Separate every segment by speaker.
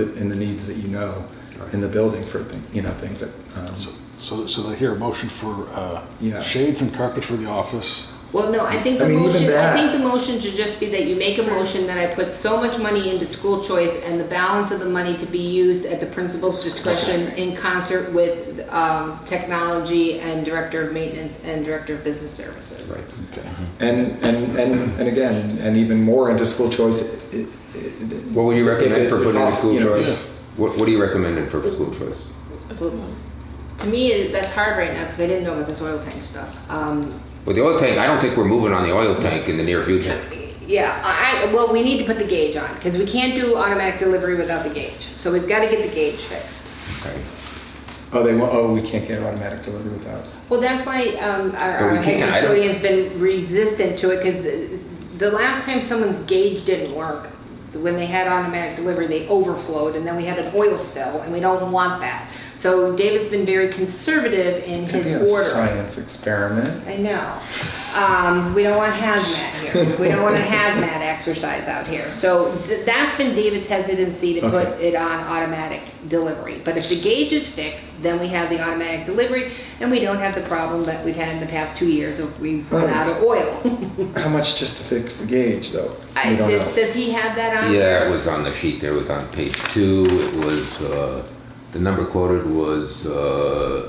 Speaker 1: it and the needs that you know in the building for, thi- you know, things that, um,
Speaker 2: So- So, so I hear a motion for uh,
Speaker 1: Yeah.
Speaker 2: shades and carpet for the office.
Speaker 3: Well, no, I think the
Speaker 1: I mean, even
Speaker 3: motion, I
Speaker 1: that-
Speaker 3: think the motion should just be that you make a motion that I put so much money into school choice and the balance of the money to be used at the principal's discretion in concert with, um, technology and director of maintenance and director of business services.
Speaker 1: right.
Speaker 2: Okay.
Speaker 1: And, and, and, and again, and even more into school choice. i- i- i-
Speaker 4: What would you
Speaker 1: if
Speaker 4: recommend
Speaker 1: it-
Speaker 4: for
Speaker 1: if
Speaker 4: putting in
Speaker 1: possi-
Speaker 4: school
Speaker 1: you know,
Speaker 4: choice? What, what are you recommending for school choice?
Speaker 3: To me, that's hard right now because I didn't know about this oil tank stuff. Um,
Speaker 4: Well, the oil tank, I don't think we're moving on the oil tank in the near future.
Speaker 3: Yeah, I, I- well, we need to put the gauge on because we can't do automatic delivery without the gauge. So we've got to get the gauge fixed.
Speaker 4: Okay.
Speaker 1: Oh, they want, oh, we can't get automatic delivery without.
Speaker 3: Well, that's why um, our,
Speaker 4: But
Speaker 3: our
Speaker 4: we
Speaker 3: head
Speaker 4: can't, I don't-
Speaker 3: custodian's been resistant to it because the last time someone's gauge didn't work, when they had automatic delivery, they overflowed and then we had an oil spill and we don't want that. So David's been very conservative in
Speaker 1: Could be
Speaker 3: his
Speaker 1: a
Speaker 3: order.
Speaker 1: Science experiment.
Speaker 3: I know. Um, we don't want hazmat here. We don't want a hazmat exercise out here. So th- that's been David's hesitancy to put
Speaker 1: Okay.
Speaker 3: it on automatic delivery. But if the gauge is fixed, then we have the automatic delivery and we don't have the problem that we've had in the past two years of we
Speaker 1: Oh.
Speaker 3: run out of oil.
Speaker 1: How much just to fix the gauge though?
Speaker 3: I,
Speaker 1: We don't
Speaker 3: does,
Speaker 1: know.
Speaker 3: does he have that on?
Speaker 4: Yeah, it was on the sheet there, it was on page two, it was, uh, the number quoted was, uh,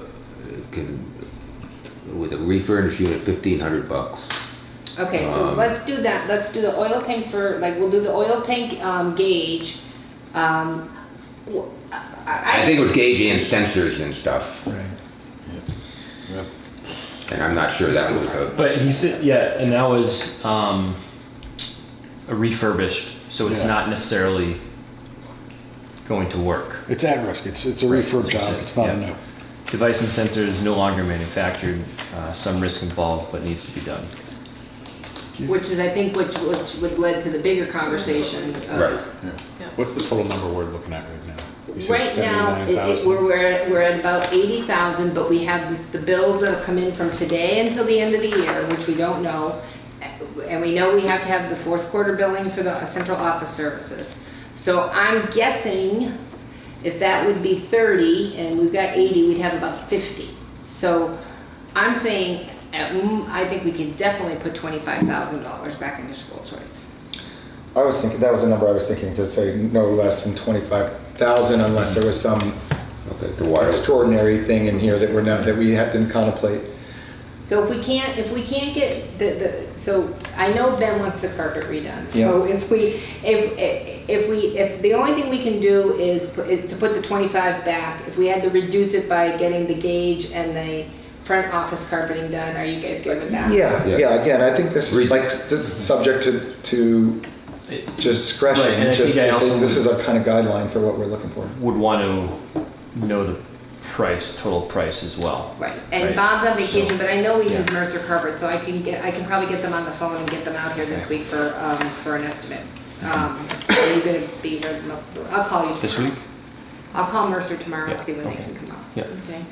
Speaker 4: can, with a refurnished unit, fifteen hundred bucks.
Speaker 3: Okay, so
Speaker 4: Um,
Speaker 3: let's do that. Let's do the oil tank for like we'll do the oil tank um, gauge. Um, w- I,
Speaker 4: I think it was gauge and sensors and stuff,
Speaker 1: Right.
Speaker 2: Yep.
Speaker 4: and I'm not sure that was a,
Speaker 5: But he said, yeah, and that was um, a refurbished, so it's
Speaker 2: Yeah.
Speaker 5: not necessarily going to work.
Speaker 2: It's at risk. It's it's a
Speaker 5: Right,
Speaker 2: refurb
Speaker 5: that's what I
Speaker 2: job.
Speaker 5: said,
Speaker 2: It's not a
Speaker 5: yeah.
Speaker 2: new.
Speaker 5: Device and sensors no longer manufactured, uh, some risk involved, but needs to be done.
Speaker 3: Which is, I think, which, which would led to the bigger conversation. of-
Speaker 4: right.
Speaker 6: What's the total number we're looking at right now? You said
Speaker 3: Right now, it- it-
Speaker 6: 79,000?
Speaker 3: we're, we're, at- we're at about eighty thousand, but we have the the bills that have come in from today until the end of the year, which we don't know. And we know we have to have the fourth quarter billing for the central office services. So I'm guessing if that would be thirty and we've got eighty, we'd have about fifty. So I'm saying, at m- I think we could definitely put twenty-five thousand dollars back into school choice.
Speaker 1: I was thinking, that was the number I was thinking, to say no less than twenty-five thousand unless there was some
Speaker 4: Okay, so water,
Speaker 1: extraordinary thing in here that we're not, that we have to contemplate.
Speaker 3: So if we can't, if we can't get the, the, so I know Ben wants the carpet redone. So if we, if, if we, if the only thing we can do is pu- is to put the twenty-five back, if we had to reduce it by getting the gauge and the front office carpeting done, are you guys good with that?
Speaker 1: Yeah,
Speaker 4: Yeah.
Speaker 1: yeah, again, I think this is
Speaker 4: Read-
Speaker 1: like, this is subject to, to
Speaker 5: It Right, and I
Speaker 1: discretion,
Speaker 5: think
Speaker 1: just,
Speaker 5: I also
Speaker 1: this
Speaker 5: would-
Speaker 1: is a kind of guideline for what we're looking for.
Speaker 5: would want to know the price, total price as well.
Speaker 3: Right, and
Speaker 5: Right.
Speaker 3: Bob's on vacation,
Speaker 5: So-
Speaker 3: but I know we use
Speaker 5: Yeah.
Speaker 3: Mercer carpet, so I can get, I can probably get them on the phone and get them out here this week for, um, for an estimate. Um, Are you gonna be here most, I'll call you.
Speaker 5: This
Speaker 3: tomorrow.
Speaker 5: week?
Speaker 3: I'll call Mercer tomorrow and
Speaker 5: Yeah,
Speaker 3: see when they
Speaker 5: okay.
Speaker 3: can come out.
Speaker 5: Yeah.
Speaker 3: Okay.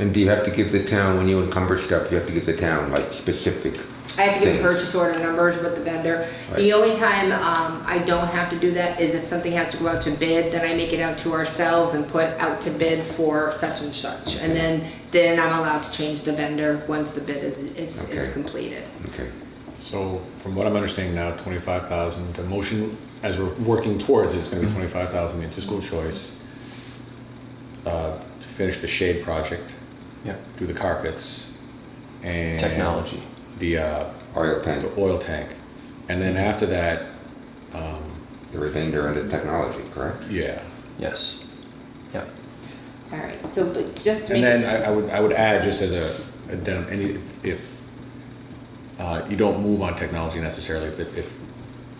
Speaker 4: and do you have to give the town, when you encumber stuff, you have to give the town like specific?
Speaker 3: I have to give
Speaker 4: things?
Speaker 3: purchase order numbers with the vendor. The
Speaker 4: Right.
Speaker 3: only time um, I don't have to do that is if something has to go out to bid, then I make it out to ourselves and put out to bid for such and such. And then, then I'm allowed to change the vendor once the bid is, is is
Speaker 4: Okay.
Speaker 3: completed.
Speaker 4: Okay.
Speaker 6: So from what I'm understanding now, 25,000, the motion, as we're working towards it, it's
Speaker 3: Mm-hmm.
Speaker 6: going to be 25,000 into school choice. uh, to Finish the shade project,
Speaker 5: Yeah.
Speaker 6: do the carpets and.
Speaker 5: Technology.
Speaker 6: The, uh,
Speaker 4: Oil tank,
Speaker 6: the oil tank. And then after that,
Speaker 4: the remainder under technology, correct?
Speaker 6: yeah.
Speaker 5: Yes. Yeah.
Speaker 3: All right, so, but just to make
Speaker 6: And then
Speaker 3: it,
Speaker 6: I, I would, I would add, just as a, addendum, any, if, uh, you don't move on technology necessarily, if, the- if,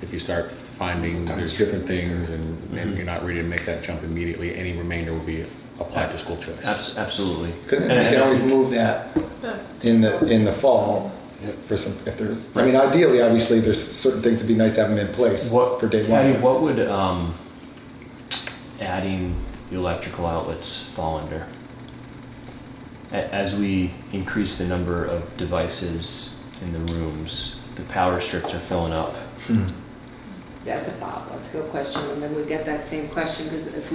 Speaker 6: if you start finding there's different things and, and you're not ready to make that jump immediately, any remainder will be applied to school choice.
Speaker 5: Abs- absolutely.
Speaker 1: Because
Speaker 5: And-
Speaker 1: then we
Speaker 5: and-
Speaker 1: can always move that in the, in the fall for some, if there's, I mean, ideally, obviously, there's certain things that'd be nice to have them in place
Speaker 5: What
Speaker 1: for day
Speaker 5: Patty,
Speaker 1: one.
Speaker 5: what would um, adding the electrical outlets fall under? A- as we increase the number of devices in the rooms, the power strips are filling up.
Speaker 3: That's a Bob Let's go question, and then we get that same question, because if we